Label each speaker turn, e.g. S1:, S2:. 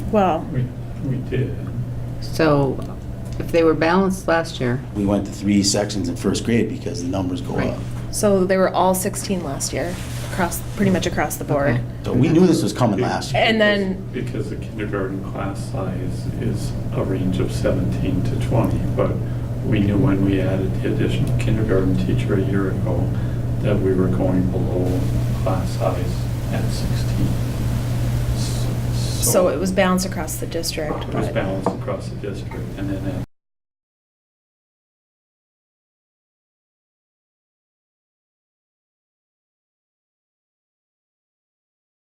S1: Well,
S2: We, we did.
S3: So if they were balanced last year,
S4: We went to three sections in first grade because the numbers go
S3: Right.
S4: up.
S5: So they were all 16 last year, across, pretty much across the board.
S3: Okay.
S4: So we knew this was coming last year.
S5: And then-
S2: Because the kindergarten class size is a range of 17 to 20, but we knew when we added the additional kindergarten teacher a year ago that we were going below class size at 16. S-
S5: So it was balanced across the district.
S2: It was
S5: but-
S2: balanced across the district, and then